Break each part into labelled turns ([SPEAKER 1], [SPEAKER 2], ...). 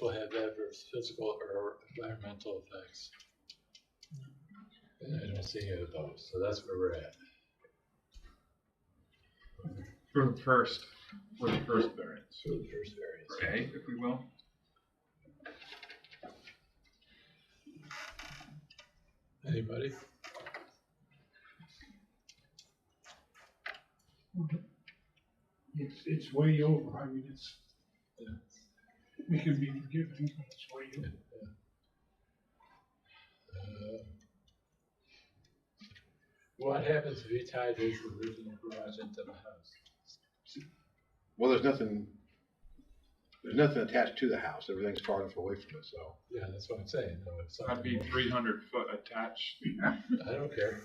[SPEAKER 1] will have adverse physical or environmental effects. And I don't see any of those, so that's where we're at.
[SPEAKER 2] For the first, for the first variance,
[SPEAKER 1] So the first variance.
[SPEAKER 2] okay, if we will.
[SPEAKER 1] Anybody?
[SPEAKER 3] It's, it's way over, I mean, it's,
[SPEAKER 1] Yeah.
[SPEAKER 3] we could be forgiving, but it's way over.
[SPEAKER 1] Uh, What happens if you tie this original garage into the house?
[SPEAKER 4] Well, there's nothing, there's nothing attached to the house. Everything's far enough away from it, so.
[SPEAKER 1] Yeah, that's what I'm saying, no, it's not.
[SPEAKER 2] That'd be three hundred foot attached,
[SPEAKER 1] I don't care.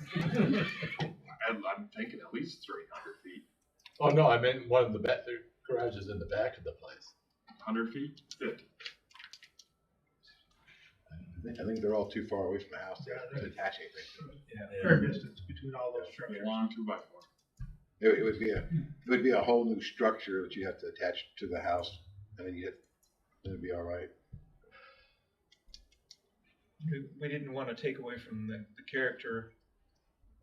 [SPEAKER 2] I'm, I'm thinking at least three hundred feet,
[SPEAKER 1] Oh, no, I meant one of the back, the garage is in the back of the place.
[SPEAKER 2] hundred feet, fifty.
[SPEAKER 4] I think- I think they're all too far away from the house to to attach anything to it.
[SPEAKER 3] Fair distance between all those structures.
[SPEAKER 2] Long two by four.
[SPEAKER 4] It, it would be a, it would be a whole new structure that you have to attach to the house and then you, then it'd be all right.
[SPEAKER 5] we- we didn't want to take away from the, the character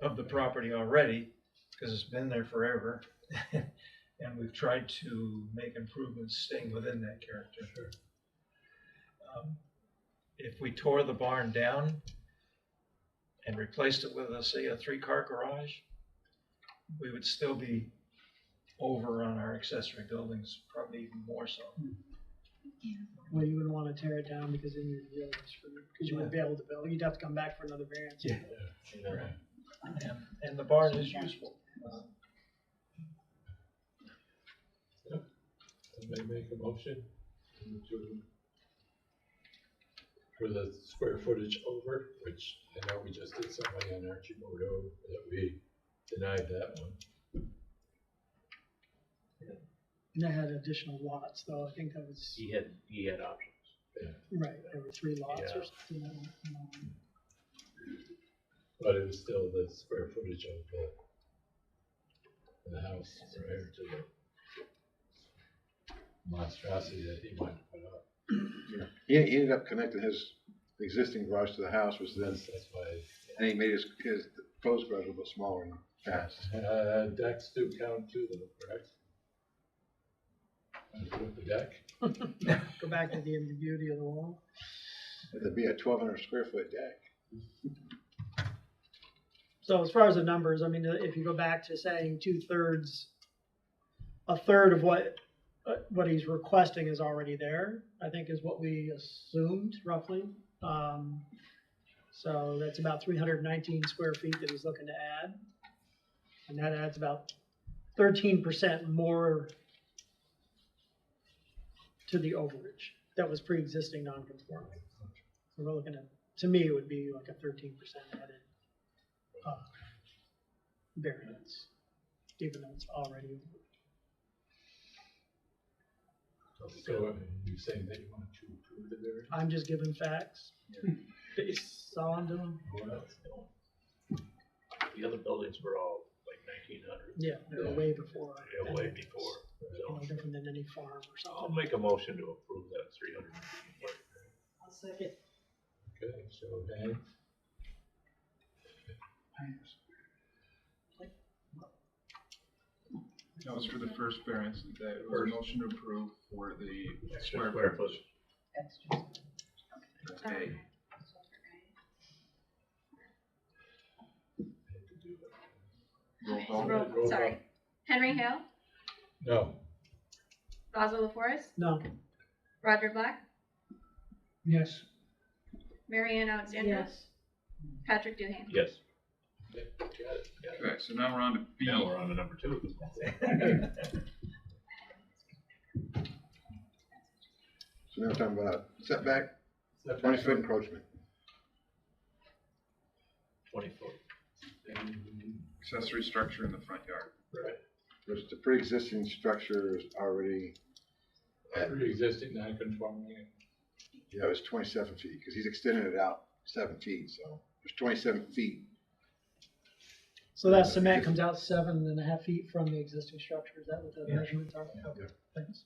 [SPEAKER 5] of the property already, because it's been there forever. And we've tried to make improvements staying within that character. Um, If we tore the barn down and replaced it with, a, say, a three-car garage, we would still be over on our accessory buildings, probably even more so.
[SPEAKER 6] Well, you wouldn't want to tear it down because then you're really screwed, because you wouldn't be able to build, you'd have to come back for another variance.
[SPEAKER 5] Yeah.
[SPEAKER 1] You know,
[SPEAKER 5] And, and the barn is useful. Um,
[SPEAKER 1] Somebody make a motion to- for the square footage over, which I know we just did somebody on Archibald that we denied that one.
[SPEAKER 6] And that had additional lots, though, I think that was,
[SPEAKER 7] He had, he had options.
[SPEAKER 6] right, there were three lots
[SPEAKER 7] Yeah.
[SPEAKER 6] or something. um,
[SPEAKER 1] But it was still the square footage of the, the house prior to the monstrosity that he wanted to put up.
[SPEAKER 4] He, he ended up connecting his existing garage to the house, which then,
[SPEAKER 1] That's, that's why,
[SPEAKER 4] and he made his, his proposed garage a little bit smaller and fast.
[SPEAKER 1] uh, decks do count too though, correct? With the deck,
[SPEAKER 6] Go back to the ambiguity of the wall.
[SPEAKER 4] It'd be a twelve hundred square foot deck.
[SPEAKER 6] So as far as the numbers, I mean, uh, if you go back to saying two thirds, a third of what, uh, what he's requesting is already there, I think is what we assumed roughly. Um, so that's about three hundred nineteen square feet that he's looking to add. And that adds about thirteen percent more to the overage that was pre-existing non-conforming. So we're looking at, to me, it would be like a thirteen percent added uh, variance, even though it's already.
[SPEAKER 1] so you're saying that you want to approve the variance?
[SPEAKER 6] I'm just giving facts. Based on them,
[SPEAKER 1] Who else?
[SPEAKER 7] The other buildings were all like nineteen hundred,
[SPEAKER 6] yeah, they're
[SPEAKER 1] Yeah.
[SPEAKER 6] way before.
[SPEAKER 7] way
[SPEAKER 6] that.
[SPEAKER 7] before.
[SPEAKER 6] No
[SPEAKER 7] So
[SPEAKER 6] different than any farm or
[SPEAKER 7] I'll
[SPEAKER 6] something.
[SPEAKER 7] make a motion to approve that three hundred.
[SPEAKER 1] Okay, so Dan,
[SPEAKER 2] That was for the first variance, that was a motion to approve for the square
[SPEAKER 7] Square foot.
[SPEAKER 2] footage. Okay. Roll call.
[SPEAKER 1] Roll.
[SPEAKER 8] Roll- Oh, Sorry. Henry Hale,
[SPEAKER 1] no,
[SPEAKER 8] Basil LaForest,
[SPEAKER 6] No,
[SPEAKER 8] Roger Black,
[SPEAKER 3] Yes,
[SPEAKER 8] Marianne Alexandra, Patrick Duhane.
[SPEAKER 7] Yes.
[SPEAKER 1] got it.
[SPEAKER 2] Okay, so now we're on to B.
[SPEAKER 7] Now we're on to number two.
[SPEAKER 4] So now we're talking about setback,
[SPEAKER 1] Setback
[SPEAKER 4] twenty foot
[SPEAKER 1] on-
[SPEAKER 4] encroachment.
[SPEAKER 7] Twenty foot.
[SPEAKER 1] and-
[SPEAKER 2] Accessory structure in the front yard.
[SPEAKER 1] Right,
[SPEAKER 4] There's the pre-existing structure is already,
[SPEAKER 1] pre-existing non-conforming,
[SPEAKER 4] yeah, it was twenty-seven feet, because he's extending it out seven feet, so there's twenty-seven feet.
[SPEAKER 6] so that cement comes out seven and a half feet from the existing structure, is that what the measurements are? Okay, thanks.